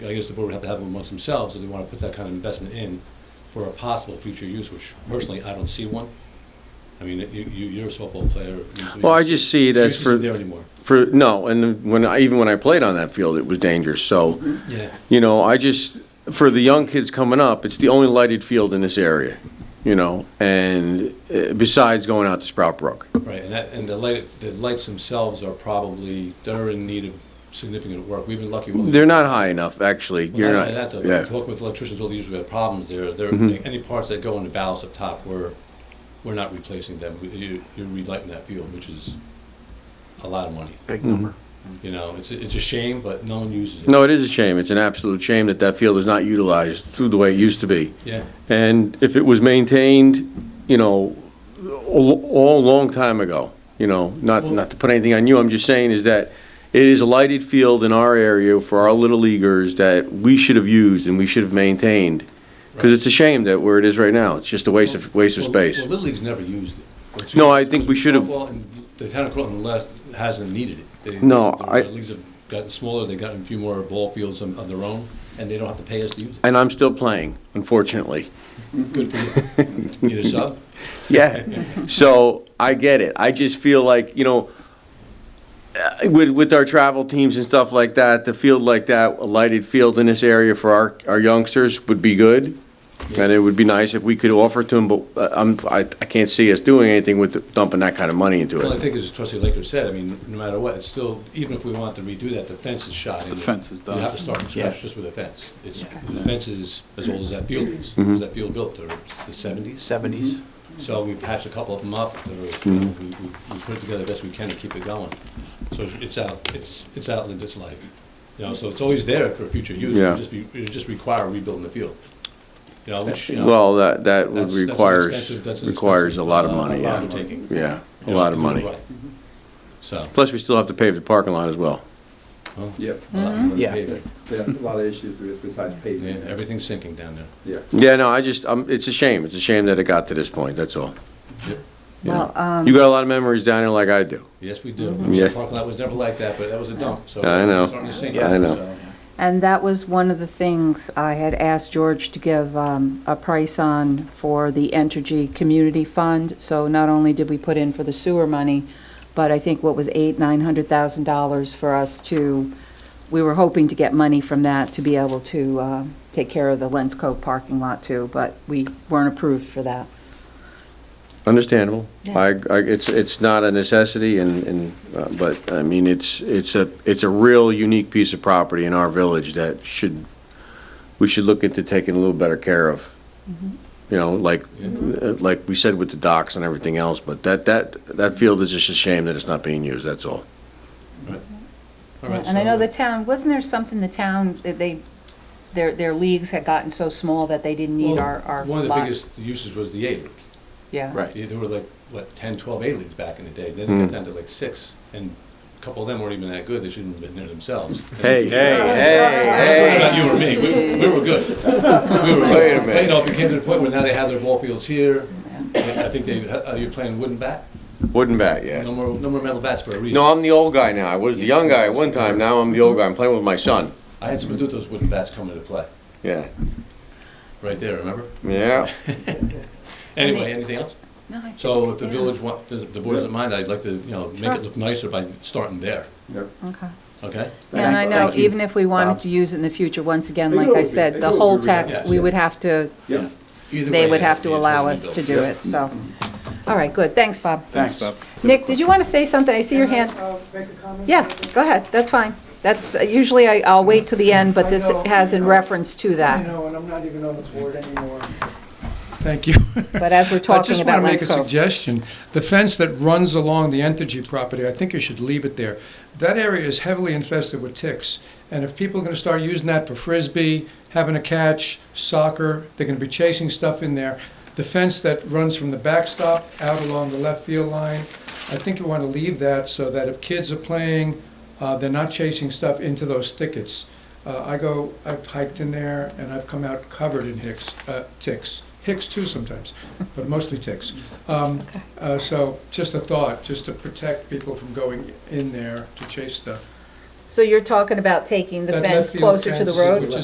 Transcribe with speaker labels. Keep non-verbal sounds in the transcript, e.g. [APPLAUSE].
Speaker 1: I guess the board would have to have them amongst themselves if they want to put that kind of investment in for a possible future use, which personally, I don't see one. I mean, you, you- you're a softball player. you-
Speaker 2: Well, I
Speaker 1: you-
Speaker 2: just see it
Speaker 1: you
Speaker 2: as
Speaker 1: just
Speaker 2: for,
Speaker 1: isn't there anymore.
Speaker 2: for, no, and when, I even when I played on that field, it was dangerous, so,
Speaker 1: Yeah,
Speaker 2: you know, I just, for the young kids coming up, it's the only lighted field in this area, you know, and uh, besides going out to Sprout Brook.
Speaker 1: right, and that, and the light, the lights themselves are probably, they're in need of significant work. We've been lucky. with-
Speaker 2: They're not high enough, actually,
Speaker 1: Well,
Speaker 2: you're
Speaker 1: only that,
Speaker 2: not,
Speaker 1: though,
Speaker 2: yeah, Mm-hmm.
Speaker 1: Talking with electricians, all these have problems there. There, any parts that go in the valves up top, we're, we're not replacing them. We- You, you're relighting that field, which is a lot of money. Mm-hmm.
Speaker 3: Big number.
Speaker 1: You know, it's, a- it's a shame, but no one uses it.
Speaker 2: no, it is a shame, it's an absolute shame that that field is not utilized through the way it used to be.
Speaker 1: Yeah,
Speaker 2: And if it was maintained, you know, all, all long time ago, you know, not, not to put anything on you, I'm just saying is that it is a lighted field in our area for our little leaguers that we should have used and we should have maintained. Because it's a shame that where it is right now, it's just a waste of, waste of
Speaker 1: Well,
Speaker 2: space.
Speaker 1: Well, Little League's never used it. It's
Speaker 2: No,
Speaker 1: used-
Speaker 2: I think
Speaker 1: it's
Speaker 2: we should have-
Speaker 1: football, and The town of Croton less hasn't needed it. They-
Speaker 2: No,
Speaker 1: the
Speaker 2: I-
Speaker 1: Leagues have gotten smaller, they've gotten a few more ball fields of of their own, and they don't have to pay us to use
Speaker 2: And I'm still playing, unfortunately.
Speaker 1: it. Good
Speaker 2: [LAUGHS]
Speaker 1: for you. Need a sub?
Speaker 2: Yeah. So I get it. I just feel like, you know, uh, with, with our travel teams and stuff like that, the field like that, a lighted field in this area for our, our youngsters would be good. And it would be nice if we could offer to them, but uh, I'm, I, I can't see us doing anything with dumping that kind of money into
Speaker 1: Well, I
Speaker 2: it.
Speaker 1: think as trustee Laker said, I mean, no matter what, it's still, even if we want to redo that, the fence is shot in.
Speaker 4: The fence is done.
Speaker 1: You have to start from
Speaker 3: Yeah.
Speaker 1: scratch just with a fence. It's, the fence is as old as that field is.
Speaker 2: Mm-hmm.
Speaker 1: Was that field built, or it's the seventies?
Speaker 3: Seventies.
Speaker 1: So we patched a couple of them up, that are- we, we, we put it together best we can to keep it going. So it's- it's out, it's, it's outlived its life, you know, so it's always there for future use,
Speaker 2: Yeah.
Speaker 1: it just be, it just require rebuilding the field. You know, which, you know.
Speaker 2: Well, that, that would
Speaker 1: that's- that's an
Speaker 2: requires,
Speaker 1: expensive- that's an
Speaker 2: requires a
Speaker 1: expensive,
Speaker 2: lot of
Speaker 1: uh,
Speaker 2: money, yeah.
Speaker 1: undertaking,
Speaker 2: Yeah, a
Speaker 1: you know,
Speaker 2: lot
Speaker 1: to
Speaker 2: of
Speaker 1: do it
Speaker 2: money.
Speaker 1: right. So.
Speaker 2: Plus, we still have to pave the parking lot as well.
Speaker 1: well,
Speaker 5: Yep.
Speaker 1: a
Speaker 6: Mm-hmm.
Speaker 1: lot more to
Speaker 3: Yeah.
Speaker 1: pay there.
Speaker 5: There are a lot of issues with besides
Speaker 1: Yeah,
Speaker 5: paving.
Speaker 1: everything's sinking down there.
Speaker 5: Yeah.
Speaker 2: Yeah, no, I just, um, it's a shame. It's a shame that it got to this point, that's all. You know.
Speaker 6: Well, um,
Speaker 2: You got a lot of memories down here like I do.
Speaker 1: Yes, we do.
Speaker 6: Mm-hmm.
Speaker 2: Yes.
Speaker 1: The Parking lot was never like that, but that was a dump, so.
Speaker 2: I know.
Speaker 1: it's starting to sink,
Speaker 2: I know.
Speaker 1: so-
Speaker 6: and that was one of the things I had asked George to give um, a price on for the Entergy Community Fund. So not only did we put in for the sewer money, but I think what was eight, nine hundred thousand dollars for us to, we were hoping to get money from that to be able to uh, take care of the Lenz Cove parking lot too, but we weren't approved for that.
Speaker 2: Understandable.
Speaker 6: Yeah.
Speaker 2: I, I, it's, it's not a necessity and, and, uh, but, I mean, it's, it's a, it's a real unique piece of property in our village that should, we should look into taking a little better care of. You know, like, uh, like we said with the docks and everything else, but that, that, that field is just a shame that it's not being used, that's all.
Speaker 1: All right,
Speaker 6: And I know
Speaker 1: so-
Speaker 6: the town, wasn't there something the town, that they, their, their leagues had gotten so small that they didn't need
Speaker 1: Well,
Speaker 6: our, our lot?
Speaker 1: One of the biggest uses was the A-League.
Speaker 6: Yeah.
Speaker 3: Right.
Speaker 1: Yeah, There were like, what, 10, 12 A-Leagues back in the day. Then it got
Speaker 2: Mm.
Speaker 1: down to like six, and a couple of them weren't even that good. They shouldn't have been there
Speaker 2: [LAUGHS]
Speaker 1: themselves. And
Speaker 2: Hey, hey,
Speaker 1: I'm
Speaker 2: hey,
Speaker 1: talking about you or me. We- We were
Speaker 6: [LAUGHS]
Speaker 1: good. We were
Speaker 2: Wait a
Speaker 1: good.
Speaker 2: minute.
Speaker 1: You know, it became to the point where now they have their ball fields here. I think they, are you playing wooden bat?
Speaker 2: hey, wooden bat,
Speaker 1: No
Speaker 2: yeah.
Speaker 1: more, no more metal bats for a reason.
Speaker 2: No, I'm the old guy now. I was the young guy at one time, now I'm the old guy. I'm playing with my son.
Speaker 1: I had some of those wooden bats come into play,
Speaker 2: Yeah,
Speaker 1: right there, remember?
Speaker 2: yeah.
Speaker 1: Anyway, anything else?
Speaker 6: No, I
Speaker 1: So
Speaker 6: think-
Speaker 1: if the
Speaker 6: yeah.
Speaker 1: village want, the the board doesn't mind, I'd like to, you know, make it look nicer by starting there,
Speaker 5: Yep.
Speaker 6: Okay.
Speaker 1: okay?
Speaker 6: Yeah, And I know,
Speaker 5: Thank you,
Speaker 6: even if we wanted
Speaker 5: Bob.
Speaker 6: to use it in the future, once again,
Speaker 5: They
Speaker 6: like
Speaker 5: will
Speaker 6: I
Speaker 5: be-
Speaker 6: said,
Speaker 5: they
Speaker 6: the
Speaker 5: will
Speaker 6: whole
Speaker 5: be
Speaker 6: tech,
Speaker 1: rebuilt,
Speaker 6: we
Speaker 1: yeah.
Speaker 6: would have to,
Speaker 5: Yeah.
Speaker 1: Either
Speaker 6: they
Speaker 1: way,
Speaker 6: would
Speaker 1: it
Speaker 6: have
Speaker 1: be
Speaker 6: to
Speaker 1: a
Speaker 6: allow
Speaker 1: totally
Speaker 6: us to
Speaker 1: built.
Speaker 6: do it, so. All right, good, thanks, Bob.
Speaker 3: Thanks.
Speaker 6: Nick, did you want to say something? I see your hand.
Speaker 7: uh,
Speaker 6: Yeah, go ahead, that's fine. That's, uh, usually I- I'll wait till the end, but this
Speaker 7: I know,
Speaker 6: has
Speaker 7: I
Speaker 6: in
Speaker 7: know.
Speaker 6: reference to
Speaker 7: I
Speaker 6: that.
Speaker 7: know, and I'm not even on this board anymore.
Speaker 8: Thank you. [LAUGHS]
Speaker 6: But as we're
Speaker 8: I
Speaker 6: talking
Speaker 8: just
Speaker 6: about
Speaker 8: want to make a
Speaker 6: Lenz Cove.
Speaker 8: suggestion. The fence that runs along the Entergy property, I think you should leave it there. That area is heavily infested with ticks, and if people are going to start using that for frisbee, having a catch, soccer, they're going to be chasing stuff in there. The fence that runs from the backstop out along the left field line, I think you want to leave that so that if kids are playing, uh, they're not chasing stuff into those thickets. Uh, I go, I've hiked in there and I've come out covered in hicks, uh, ticks. Hicks too sometimes, but mostly ticks. Um, uh, so just a thought, just to protect people from going in there to chase stuff.
Speaker 6: So you're talking about taking the
Speaker 8: That
Speaker 6: fence
Speaker 8: left field
Speaker 6: closer to the
Speaker 8: fence,
Speaker 6: road?
Speaker 8: which is